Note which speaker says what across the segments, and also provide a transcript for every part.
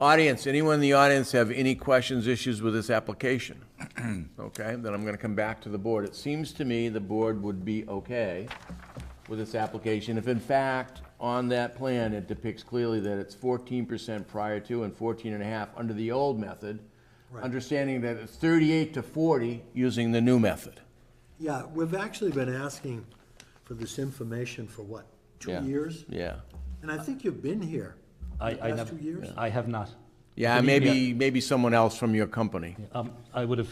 Speaker 1: Audience, anyone in the audience have any questions, issues with this application? Okay, then I'm gonna come back to the board. It seems to me the board would be okay with this application if in fact, on that plan, it depicts clearly that it's fourteen percent prior to and fourteen and a half under the old method, understanding that it's thirty-eight to forty using the new method.
Speaker 2: Yeah, we've actually been asking for this information for what, two
Speaker 1: Yeah.
Speaker 2: years?
Speaker 1: Yeah.
Speaker 2: And I think you've been here.
Speaker 3: I,
Speaker 2: the
Speaker 3: I
Speaker 2: Past
Speaker 3: never,
Speaker 2: two years?
Speaker 3: I have not.
Speaker 1: Yeah,
Speaker 3: Believe me,
Speaker 1: maybe, maybe someone else from your company,
Speaker 3: Um, I would have,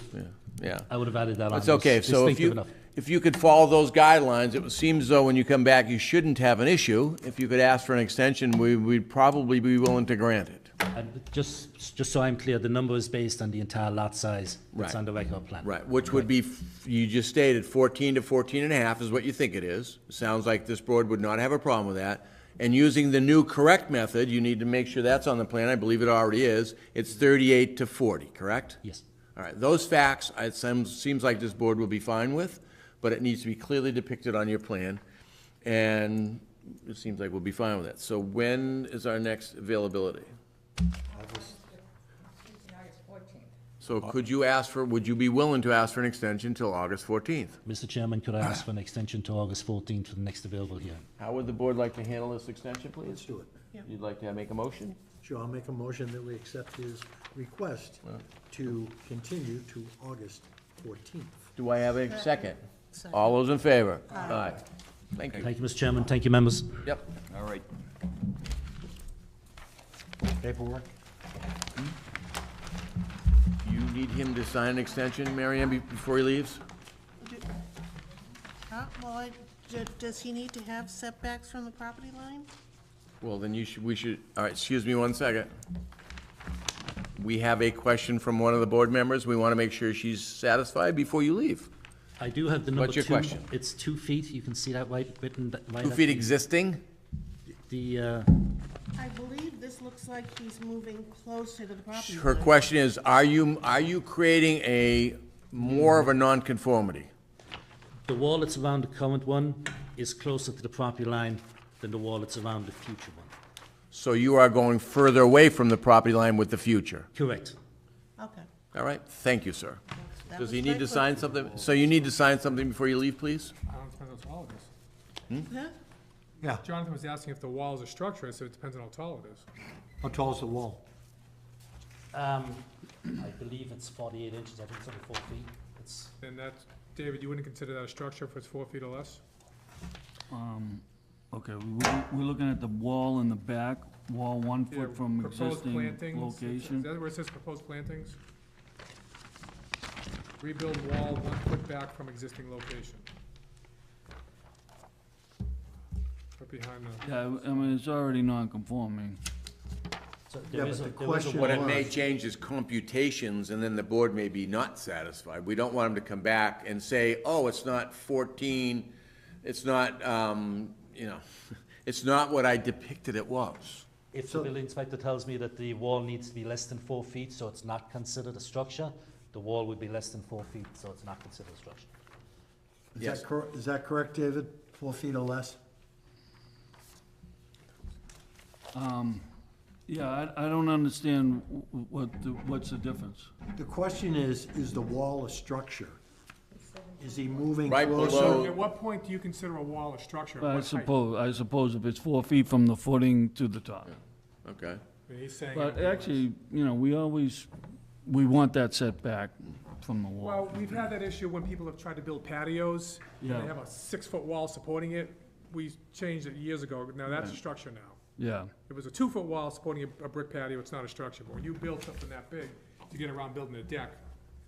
Speaker 1: yeah.
Speaker 3: I would have added that on.
Speaker 1: That's okay,
Speaker 3: It's
Speaker 1: so if
Speaker 3: distinctive
Speaker 1: you,
Speaker 3: enough.
Speaker 1: if you could follow those guidelines, it seems though when you come back, you shouldn't have an issue. If you could ask for an extension, we, we'd probably be willing to grant it.
Speaker 3: And just, just so I'm clear, the number is based on the entire lot size
Speaker 1: Right.
Speaker 3: that's on the record plan.
Speaker 1: Right, which would be, f- you just stated fourteen to fourteen and a half is what you think it is. Sounds like this board would not have a problem with that. And using the new correct method, you need to make sure that's on the plan, I believe it already is. It's thirty-eight to forty, correct?
Speaker 3: Yes.
Speaker 1: All right, those facts, it seems, seems like this board will be fine with, but it needs to be clearly depicted on your plan, and it seems like we'll be fine with that. So when is our next availability? So could you ask for, would you be willing to ask for an extension till August fourteenth?
Speaker 3: Mr. Chairman, could I
Speaker 1: Ah.
Speaker 3: ask for an extension to August 14th for the next available hearing?
Speaker 1: How would the board like to handle this extension,
Speaker 2: Let's
Speaker 1: please?
Speaker 2: do it.
Speaker 1: You'd like to make a motion?
Speaker 2: Sure, I'll make a motion that we accept his request to continue to August fourteenth.
Speaker 1: Do I have a second? All those in favor? Aye. Thank you.
Speaker 3: Thank you, Mr. Chairman. Thank you, members.
Speaker 1: Yep.
Speaker 4: All right.
Speaker 2: Paperwork?
Speaker 1: You need him to sign an extension, Mary Ann, be- before he leaves?
Speaker 5: Uh, Well, I- d- does he need to have setbacks from the property line?
Speaker 1: Well, then you should, we should, all right, excuse me one second. We have a question from one of the board members. We want to make sure she's satisfied before you leave.
Speaker 3: I do have the number two.
Speaker 1: What's your question?
Speaker 3: It's two feet. You can see that right, written th- right.
Speaker 1: Two
Speaker 3: at
Speaker 1: feet
Speaker 3: the-
Speaker 1: existing?
Speaker 3: The, uh,
Speaker 5: I believe this looks like he's moving closer to the property line.
Speaker 1: Her question is, are you, are you creating a, more of a nonconformity?
Speaker 3: the wall that's around the current one is closer to the property line than the wall that's around the future one.
Speaker 1: So you are going further away from the property line with the future.
Speaker 3: Correct.
Speaker 5: Okay.
Speaker 1: All right, thank you, sir.
Speaker 5: That
Speaker 1: Does
Speaker 5: was
Speaker 1: he
Speaker 5: my
Speaker 1: need to sign
Speaker 5: question.
Speaker 1: something? So you need to sign something before you leave, please?
Speaker 6: I don't know, it depends on how tall it is.
Speaker 5: Huh?
Speaker 2: Yeah,
Speaker 6: Jonathan was asking if the wall is a structure, I said it depends on how tall it is.
Speaker 2: how tall is the wall?
Speaker 3: Um, I believe it's 48 inches. I think it's over four feet. It's,
Speaker 6: And that's, David, you wouldn't consider that a structure if it's four feet or less?
Speaker 7: Okay, we- we- we're looking at the wall in the back, wall one
Speaker 6: Yeah,
Speaker 7: foot from
Speaker 6: proposed
Speaker 7: existing
Speaker 6: plantings, Is
Speaker 7: location.
Speaker 6: that where it says proposed plantings? Rebuild wall one foot back from existing location. Right behind the,
Speaker 7: Yeah, I mean, it's already non-conforming.
Speaker 2: Yeah,
Speaker 3: so there
Speaker 2: but
Speaker 3: is a,
Speaker 2: the
Speaker 3: there is a
Speaker 2: question
Speaker 1: What
Speaker 3: wall-
Speaker 1: it may change is computations, and then the board may be not satisfied. We don't want them to come back and say, oh, it's not fourteen, it's not, um, you know, it's not what I depicted it was.
Speaker 3: If the building inspector tells me that the wall needs to be less than four feet, so it's not considered a structure, the wall would be less than four feet, so it's not considered a structure.
Speaker 2: Is
Speaker 1: Yes.
Speaker 2: that cor- is that correct, David? Four feet or less?
Speaker 7: Yeah, I, I don't understand wh- wh- what, the- what's the difference?
Speaker 2: The question is, is the wall a structure? Is he moving
Speaker 1: Right
Speaker 2: closer?
Speaker 1: below-
Speaker 6: at what point do you consider a wall a structure? At
Speaker 7: I
Speaker 6: what height?
Speaker 7: suppose, I suppose if it's four feet from the footing to the top.
Speaker 1: Okay.
Speaker 6: I mean, He's saying.
Speaker 7: But
Speaker 6: it was-
Speaker 7: actually, you know, we always, we want that setback from the wall.
Speaker 6: Well, we've had that issue when people have tried to build patios, and
Speaker 7: Yeah.
Speaker 6: they have a six-foot wall supporting it. We changed it years ago, now that's a structure now.
Speaker 7: Yeah,
Speaker 6: It was a two-foot wall supporting a, a brick patio, it's not a structure, but when you build something that big, to get around building a deck,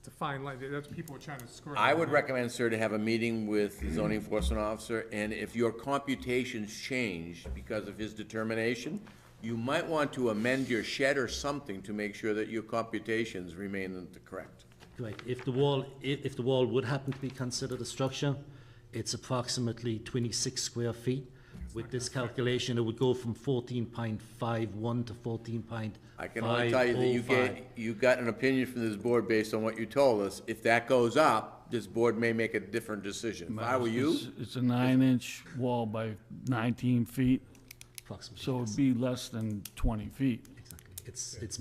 Speaker 6: it's a fine line, that's what people are trying to square.
Speaker 1: I would recommend, sir, to have a meeting with the zoning enforcement officer, and if your computations change because of his determination, you might want to amend your shed or something to make sure that your computations remain the correct.
Speaker 3: Correct. If the wall, if, if the wall would happen to be considered a structure, it's approximately twenty-six square feet. With this calculation, it would go from fourteen point five one to fourteen point
Speaker 1: I
Speaker 3: five
Speaker 1: can
Speaker 3: oh
Speaker 1: only tell you that you
Speaker 3: five.
Speaker 1: get, you got an opinion from this board based on what you told us. If that goes up, this board may make a different decision. If I were you,
Speaker 7: it's, it's a nine-inch wall by nineteen feet,
Speaker 3: Approximately,
Speaker 7: so it'd be less than twenty feet.
Speaker 3: exactly. It's, it's